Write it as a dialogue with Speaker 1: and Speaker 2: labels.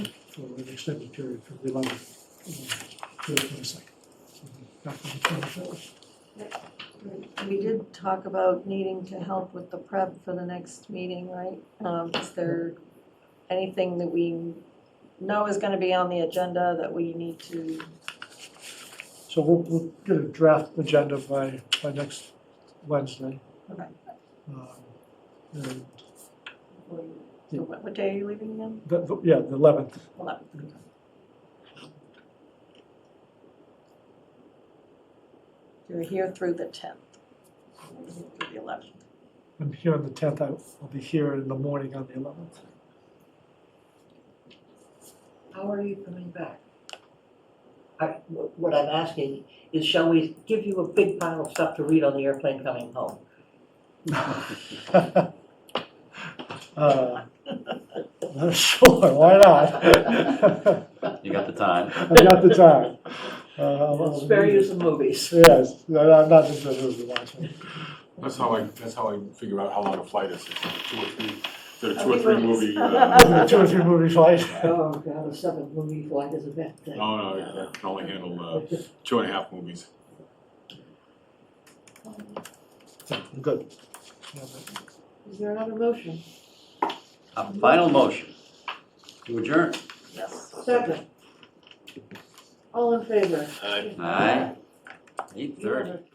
Speaker 1: for an extended period from the uh, eleventh to the twenty-second. Back on the twenty-fourth.
Speaker 2: We did talk about needing to help with the prep for the next meeting, right? Um, is there anything that we know is gonna be on the agenda that we need to,
Speaker 1: So we'll, we'll get a draft agenda by, by next Wednesday.
Speaker 2: Okay.
Speaker 1: Um, and
Speaker 2: so what, what day are you leaving again?
Speaker 1: the- the- yeah, the eleventh,
Speaker 2: Eleven. You're here through the tenth. Through the eleventh.
Speaker 1: I'm here on the tenth, I'll be here in the morning on the eleventh.
Speaker 3: How are you coming back? I, wh- what I'm asking is shall we give you a big pile of stuff to read on the airplane coming home?
Speaker 1: Uh, Sure, why not?
Speaker 4: You got the time.
Speaker 1: I've got the time. Uh, I'll- I'll-
Speaker 3: Spare you some movies.
Speaker 1: Yes, no, no, I'm not just gonna do the last one.
Speaker 5: That's how I, that's how I figure out how long a flight is, It's like two or three, there are two
Speaker 2: Oh,
Speaker 5: or three
Speaker 2: we
Speaker 5: movie.
Speaker 2: will.
Speaker 5: uh,
Speaker 1: Two or three movie flights.
Speaker 3: Oh, God, a seven movie flight is a bad thing.
Speaker 5: No, no, I can only handle uh, two and a half movies.
Speaker 1: Good.
Speaker 3: Is there another motion?
Speaker 4: A final motion to adjourn.
Speaker 2: Yes.
Speaker 3: Second. All in favor?
Speaker 5: Aye.
Speaker 4: Aye. Eight thirty.